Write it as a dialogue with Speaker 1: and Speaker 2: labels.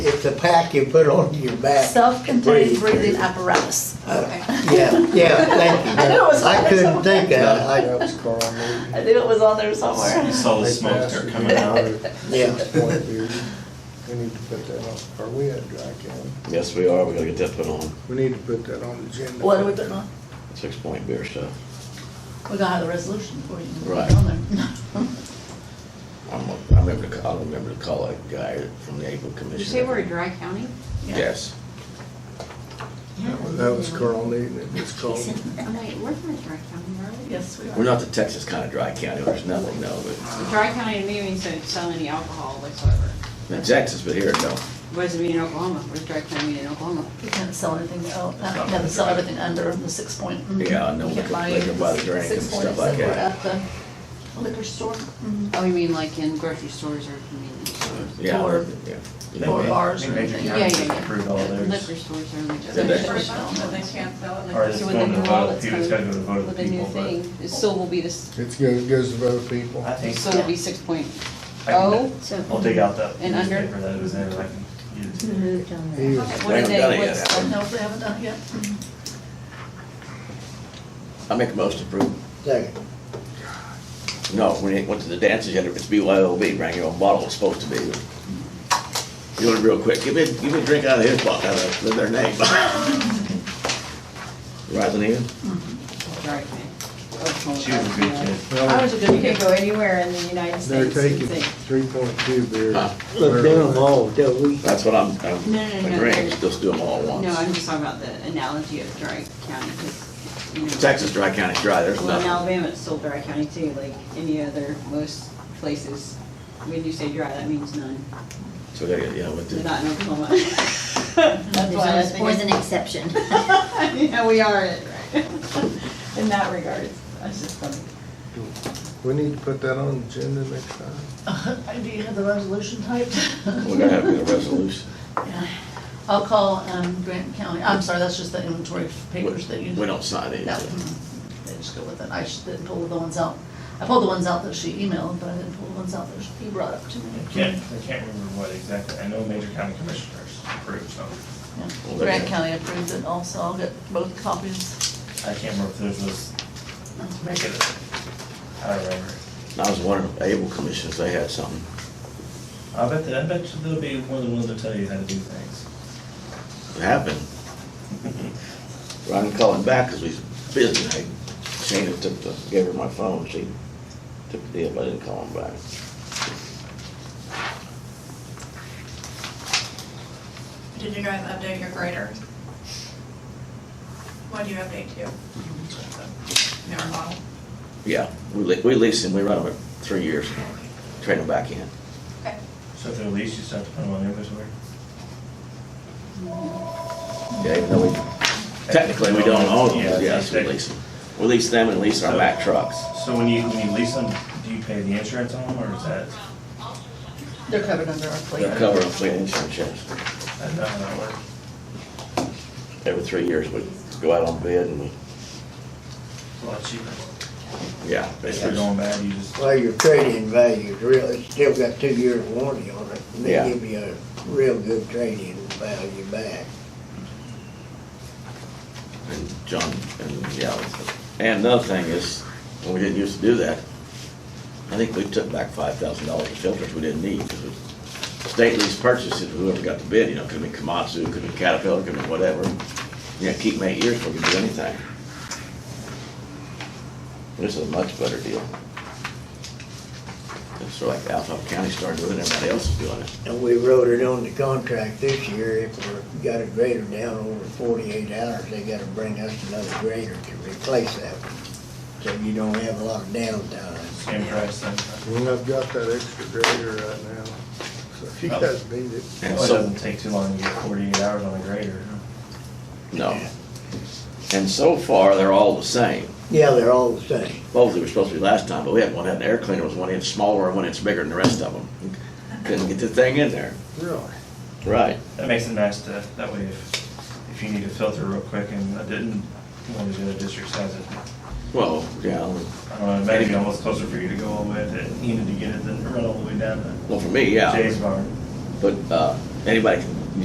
Speaker 1: It's a pack you put on your back.
Speaker 2: Self-contained
Speaker 1: Breathe.
Speaker 2: breathing apparatus.
Speaker 3: Okay.
Speaker 1: Yeah, yeah, thank you.
Speaker 2: I knew it was
Speaker 1: I couldn't
Speaker 2: somewhere.
Speaker 1: think of it. I,
Speaker 4: That was Carl Newton.
Speaker 2: I knew it was on there somewhere.
Speaker 5: You saw the
Speaker 4: They
Speaker 5: smoke
Speaker 4: passed
Speaker 5: start
Speaker 4: it
Speaker 5: coming out.
Speaker 4: at
Speaker 1: Yeah.
Speaker 4: six point beer. We need to put that on, are we at dry county?
Speaker 6: Yes, we are. We gotta get that put on,
Speaker 4: We need to put that on the agenda.
Speaker 2: What are we putting on?
Speaker 6: six point beer stuff.
Speaker 2: We're gonna have the resolution for you. Put it
Speaker 6: Right.
Speaker 2: on there.
Speaker 6: I'm, a- I remember, the- I remember to call that guy from the April Commission.
Speaker 3: Did you say we're a dry county?
Speaker 2: Yeah.
Speaker 6: Yes.
Speaker 4: That was- That was Carl Newton, it was called.
Speaker 3: Oh, Wait, we're not a dry county, are we?
Speaker 2: Yes, we
Speaker 6: We're
Speaker 2: are.
Speaker 6: not the Texas kind of dry county. There's nothing, no, but,
Speaker 3: Dry county to me means they don't sell any alcohol whatsoever.
Speaker 6: in Texas, but here, no.
Speaker 3: What does it mean in Oklahoma? What does dry county mean in Oklahoma?
Speaker 2: We can't sell anything, oh, uh, we can't sell everything under the six point. mhm.
Speaker 6: Yeah, I know,
Speaker 2: We
Speaker 6: we
Speaker 2: can't
Speaker 6: could-
Speaker 2: buy
Speaker 6: they can buy the drink and
Speaker 2: six
Speaker 6: stuff
Speaker 2: points
Speaker 6: like
Speaker 2: that were
Speaker 6: that.
Speaker 2: At the liquor store, mhm,
Speaker 3: Oh, you mean like in grocery stores or convenience stores?
Speaker 6: Yeah,
Speaker 2: Or-
Speaker 6: yeah. You know,
Speaker 2: or bars or
Speaker 5: Major
Speaker 2: anything.
Speaker 3: Yeah,
Speaker 5: Yeah,
Speaker 3: yeah,
Speaker 5: we
Speaker 3: yeah.
Speaker 5: approved all theirs.
Speaker 3: Liquor stores are.
Speaker 6: Did they?
Speaker 2: Liquor store, no, they can't.
Speaker 5: Or it's going to vote, people, it's gotta go to vote of the
Speaker 3: With a new
Speaker 5: people, but-
Speaker 3: thing, it still will be this,
Speaker 4: It's good, goes to other people.
Speaker 5: I
Speaker 3: it
Speaker 5: think,
Speaker 3: still will be six point
Speaker 5: I can-
Speaker 3: oh.
Speaker 5: I'll dig out that
Speaker 3: And under?
Speaker 5: newspaper that was there, I can use it.
Speaker 4: He was-
Speaker 3: Okay,
Speaker 6: They
Speaker 3: What are
Speaker 6: haven't done it
Speaker 3: they,
Speaker 6: yet,
Speaker 3: what's,
Speaker 6: have
Speaker 3: the-
Speaker 2: No, they haven't done it yet. Mhm.
Speaker 6: I make a motion to approve.
Speaker 1: second,
Speaker 6: No, when it went to the dances, you had to- it's BYOB, bring your own bottle, it's supposed to be. You want it real quick, give me, give me a drink out of his bottle, out of with their name. Rising Eagle?
Speaker 3: dry county. Oklahoma,
Speaker 5: She was a good
Speaker 3: yeah.
Speaker 5: kid.
Speaker 4: Well,
Speaker 3: You can't go anywhere in the United
Speaker 4: They're
Speaker 3: States and
Speaker 4: taking
Speaker 3: think.
Speaker 4: three point two beers.
Speaker 6: Huh.
Speaker 1: look down all, till we,
Speaker 6: That's what I'm,
Speaker 3: No, no,
Speaker 6: I'm,
Speaker 3: no,
Speaker 6: my
Speaker 3: no.
Speaker 6: drinks, just do them all at
Speaker 3: No, I'm
Speaker 6: once.
Speaker 3: just talking about the analogy of dry county, because, you know.
Speaker 6: Texas dry county dry, there's
Speaker 3: Well, in
Speaker 6: nothing.
Speaker 3: Alabama, it's still dry county too, like any other, most places. When you say dry, that means none,
Speaker 6: So they, yeah, what
Speaker 3: They're
Speaker 6: the,
Speaker 3: not in Oklahoma. That's
Speaker 7: There's
Speaker 3: why I
Speaker 7: always
Speaker 3: think
Speaker 7: always
Speaker 3: it's-
Speaker 7: an exception.
Speaker 3: Yeah, we are it, right? In that regard, it's- that's just funny.
Speaker 4: We need to put that on the agenda next time.
Speaker 2: Do you have the resolution typed?
Speaker 6: we gotta have a resolution.
Speaker 2: Yeah. I'll call um, Grant County, I'm sorry, that's just the inventory papers that you.
Speaker 6: We don't sign
Speaker 2: No,
Speaker 6: anything.
Speaker 2: mm, they just go with it, I just didn't pull the ones out, I pulled the ones out that she emailed, but I didn't pull the ones out that he brought up to me.
Speaker 5: I can't, I can't remember what exactly, I know major county commissioners approved something.
Speaker 2: Yeah.
Speaker 6: Well, there
Speaker 2: Grant
Speaker 6: you go.
Speaker 2: County approved it also, I'll get both copies.
Speaker 5: I can't remember if theirs was, make it, I don't remember.
Speaker 6: I was wondering, if Able Commissioners, they had something.
Speaker 5: I bet, that- I bet you they'll be one of the ones that tell you how to do things.
Speaker 6: It happened. Well, I didn't call him back because he's busy. I Shana took the, gave her my phone. She took the deal, but I didn't call him back.
Speaker 8: Did you guys update your graders? What do you update to? Never model.
Speaker 6: Yeah, we le- we leased him, we run him at three years, trade him back in.
Speaker 8: Okay.
Speaker 5: So if they're leased, you still have to put them on inventory?
Speaker 6: Yeah, even though we, technically, we don't own them, but yes, we lease them. We lease them and lease our Mack trucks.
Speaker 5: So when you, when you lease them, do you pay the insurance on them, or is that,
Speaker 2: They're covered under our fleet.
Speaker 6: They cover our fleet insurance, yes.
Speaker 5: I don't know how that works.
Speaker 6: Every three years, we go out on bid and we,
Speaker 5: It's a lot cheaper.
Speaker 6: yeah.
Speaker 5: If they're
Speaker 6: basically.
Speaker 5: going bad, you just,
Speaker 1: well, your trading value is real, it's still got two years warranty on it. and
Speaker 6: Yeah.
Speaker 1: They give you a real good trading value back.
Speaker 6: And John, and yeah, and another thing is, when we didn't used to do that, I think we took back five thousand dollars of filters we didn't need, because state lease purchases, whoever got the bid, you know, could be Komatsu, could be Caterpillar, could be whatever. You know, keep them eight years before we do anything. This is a much better deal. It's sort of like Alphaba County started doing it, everybody else is doing it.
Speaker 1: And we wrote it on the contract this year, if we got a grader down over forty-eight hours, they gotta bring us another grader to replace that one. So you don't have a lot of downtime.
Speaker 5: same price, then.
Speaker 4: And I've got that extra grader right now, so if you
Speaker 5: Oh.
Speaker 4: guys need it.
Speaker 6: And
Speaker 5: Well, Oh, it
Speaker 6: so-
Speaker 5: doesn't take too long to get forty-eight hours on a grader. huh?
Speaker 6: No. And so far, they're all the same.
Speaker 1: Yeah, they're all the same.
Speaker 6: Both they were supposed to be last time, but we had one, had an air cleaner, was one inch smaller and one inch bigger than the rest of them. Couldn't get the thing in there.
Speaker 4: Really?
Speaker 6: Right.
Speaker 5: That makes it nice to, that way if, if you need a filter real quick, and I didn't, one of the other districts has it.
Speaker 6: Well, yeah,
Speaker 5: I don't know, maybe almost closer for you to go all the way, to you need to get it, than run all the way down
Speaker 6: well, for me,
Speaker 5: to Jay's
Speaker 6: yeah,
Speaker 5: barn.
Speaker 6: but, uh, anybody can